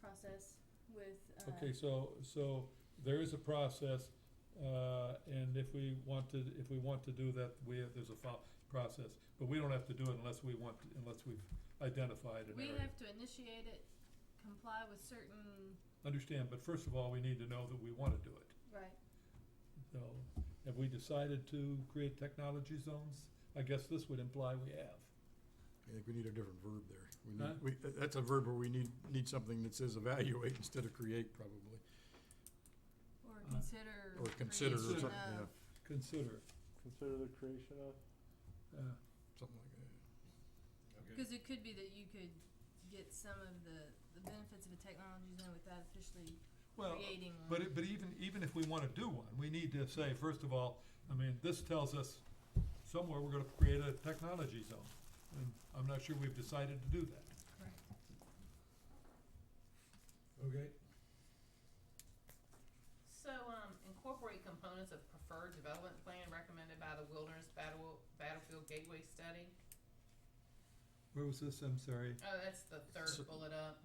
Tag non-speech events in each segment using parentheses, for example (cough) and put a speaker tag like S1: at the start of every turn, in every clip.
S1: process with, uh,
S2: Okay, so, so there is a process, uh, and if we want to, if we want to do that, we have, there's a fol- process. But we don't have to do it unless we want, unless we've identified an
S1: we
S2: area.
S1: have to initiate it, comply with certain,
S2: Understand, but first of all, we need to know that we wanna do it.
S1: right,
S2: So, have we decided to create technology zones? I guess this would imply we have.
S3: I think we need a different verb there. We
S2: Huh?
S3: need, we, that's a verb where we need, need something that says evaluate (laughs) instead of create probably,
S1: or
S2: Uh,
S1: consider.
S3: or consider or
S1: creation
S3: something,
S1: of-
S3: yeah,
S2: Consider,
S4: Consider the creation of,
S2: uh,
S3: something like that.
S1: Cause it could be that you could get some of the, the benefits of a technology zone without officially
S2: well,
S1: creating one.
S2: But it, but even, even if we wanna do one, we need to say, first of all, I mean, this tells us somewhere we're gonna create a technology zone. And I'm not sure we've decided to do that.
S1: Correct.
S3: Okay.
S5: So, um, incorporate components of preferred development plan recommended by the Wilderness Battle, Battlefield Gateway Study.
S2: Where was this, I'm sorry?
S5: Oh, that's the
S3: Se-
S5: third bullet up.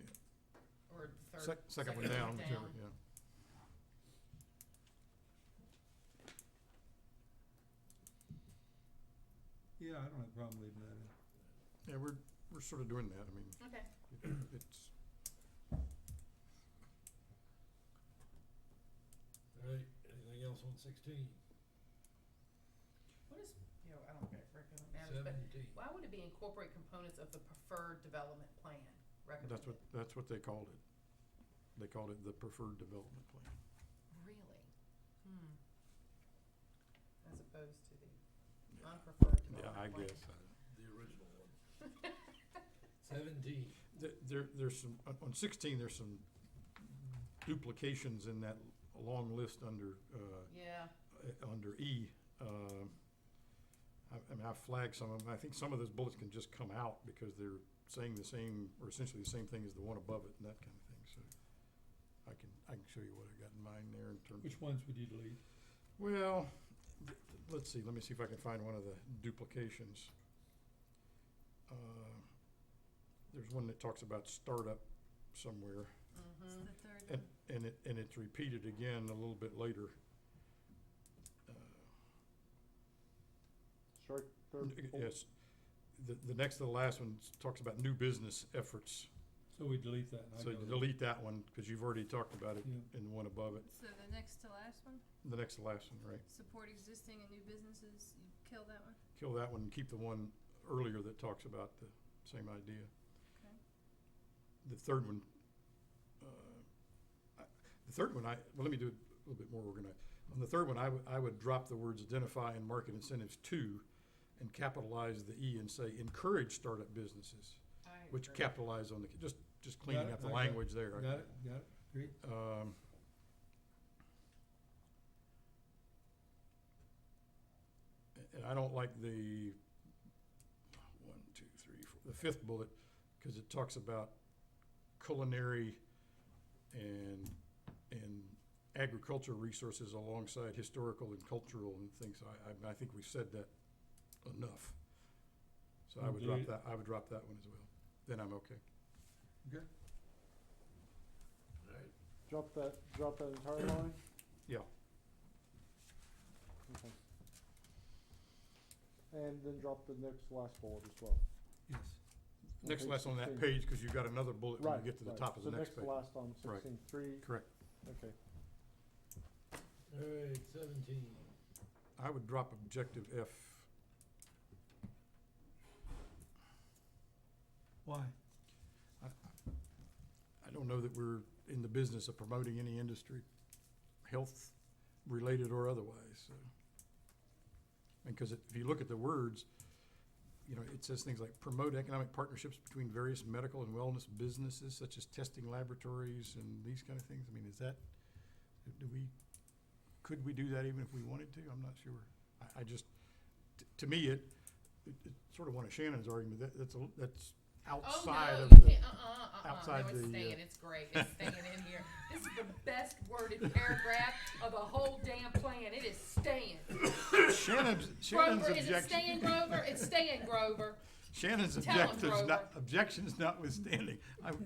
S3: Yeah.
S5: Or the third.
S3: Sec- second one down, whichever, yeah.
S2: Yeah, I don't have a problem leaving that in.
S3: Yeah, we're, we're sort of doing that. I mean,
S5: Okay,
S3: it- it's,
S6: All right, anything else on sixteen?
S5: what is, you know, I don't rec- recommend matters, but
S6: Seventeen.
S5: why would it be incorporate components of the preferred development plan recommended?
S3: that's what, that's what they called it. They called it the preferred development plan.
S5: Really? Hmm. As opposed to the
S3: Yeah.
S5: unpreferred development
S3: Yeah, I
S5: plan.
S3: guess.
S6: The original one. (laughs) Seventeen.
S3: There- There, there's some, on- on sixteen, there's some duplications in that long list under, uh,
S5: Yeah,
S3: uh, under E, um, I I mean, I flagged some of them. I think some of those bullets can just come out because they're saying the same, or essentially the same thing as the one above it and that kind of thing, so. I can, I can show you what I got in mind there in terms
S2: Which
S3: of,
S2: ones would you delete?
S3: well, th- th- let's see, let me see if I can find one of the duplications. Uh, There's one that talks about startup somewhere.
S1: It's
S5: mm-hmm,
S2: Mm.
S1: the third
S3: And,
S1: one.
S3: and it, and it's repeated again a little bit later. Uh,
S4: strike
S3: N-
S4: third. bullet.
S3: Yes. The, the next to the last one s- talks about new business efforts.
S2: So we delete that. I
S3: So
S2: know
S3: you
S2: that.
S3: delete that one because you've already talked about it
S2: Yeah.
S3: in the one above it,
S1: So the next to last one,
S3: the next to last one, right?
S1: support existing and new businesses, you kill that one,
S3: Kill that one, and keep the one earlier that talks about the same idea.
S1: okay?
S3: The third one, uh, I- the third one, I, well, let me do it a little bit more organized. On the third one, I would, I would drop the words identify and market incentives to and capitalize the E and say encourage startup businesses,
S5: I agree.
S3: which capitalize on the, just, just cleaning
S2: it,
S3: up the
S2: I got it,
S3: language there. I
S2: Got it, got it, great.
S3: Um, a- And I don't like the, one, two, three, four, the fifth bullet, because it talks about culinary and, and agriculture resources alongside historical and cultural and things. I, I, I think we've said that enough. So I would drop
S2: Indeed.
S3: that, I would drop that one as well. Then I'm okay.
S2: Okay.
S6: All right,
S4: Drop that, drop that entire line?
S3: Yeah.
S4: Okay. And then drop the next last bullet as well.
S2: Yes.
S4: On
S3: Next
S4: page
S3: less on that
S4: 16.
S3: page, because you've got another bullet when you
S4: Right,
S3: get to the
S4: right.
S3: top of the next page.
S4: So next to last on
S3: Right.
S4: sixteen three,
S3: Correct.
S4: okay.
S6: all right, seventeen.
S3: I would drop objective F.
S2: Why?
S3: I don't know that we're in the business of promoting any industry, health-related or otherwise, so. Because if you look at the words, you know, it says things like promote economic partnerships between various medical and wellness businesses such as testing laboratories and these kind of things. I mean, is that, do we, could we do that even if we wanted to? I'm not sure. I, I just, t- to me, it, it- it's sort of one of Shannon's argument, that, that's, a- that's outside
S5: oh,
S3: of
S5: no,
S3: the.
S5: (laughs) you can't, uh-uh, uh-uh.
S3: outside
S5: no, it's
S3: the, uh,
S5: staying. It's great. It's
S3: (laughs)
S5: staying in here. This is the best worded paragraph of the whole damn plan. It is staying.
S3: Shannon's, Shannon's
S5: Grover, is it staying,
S3: objection,
S5: Grover? It's staying, Grover.
S3: Shannon's
S5: Tell 'em,
S3: objectives, not,
S5: Grover.
S3: objections notwithstanding, I,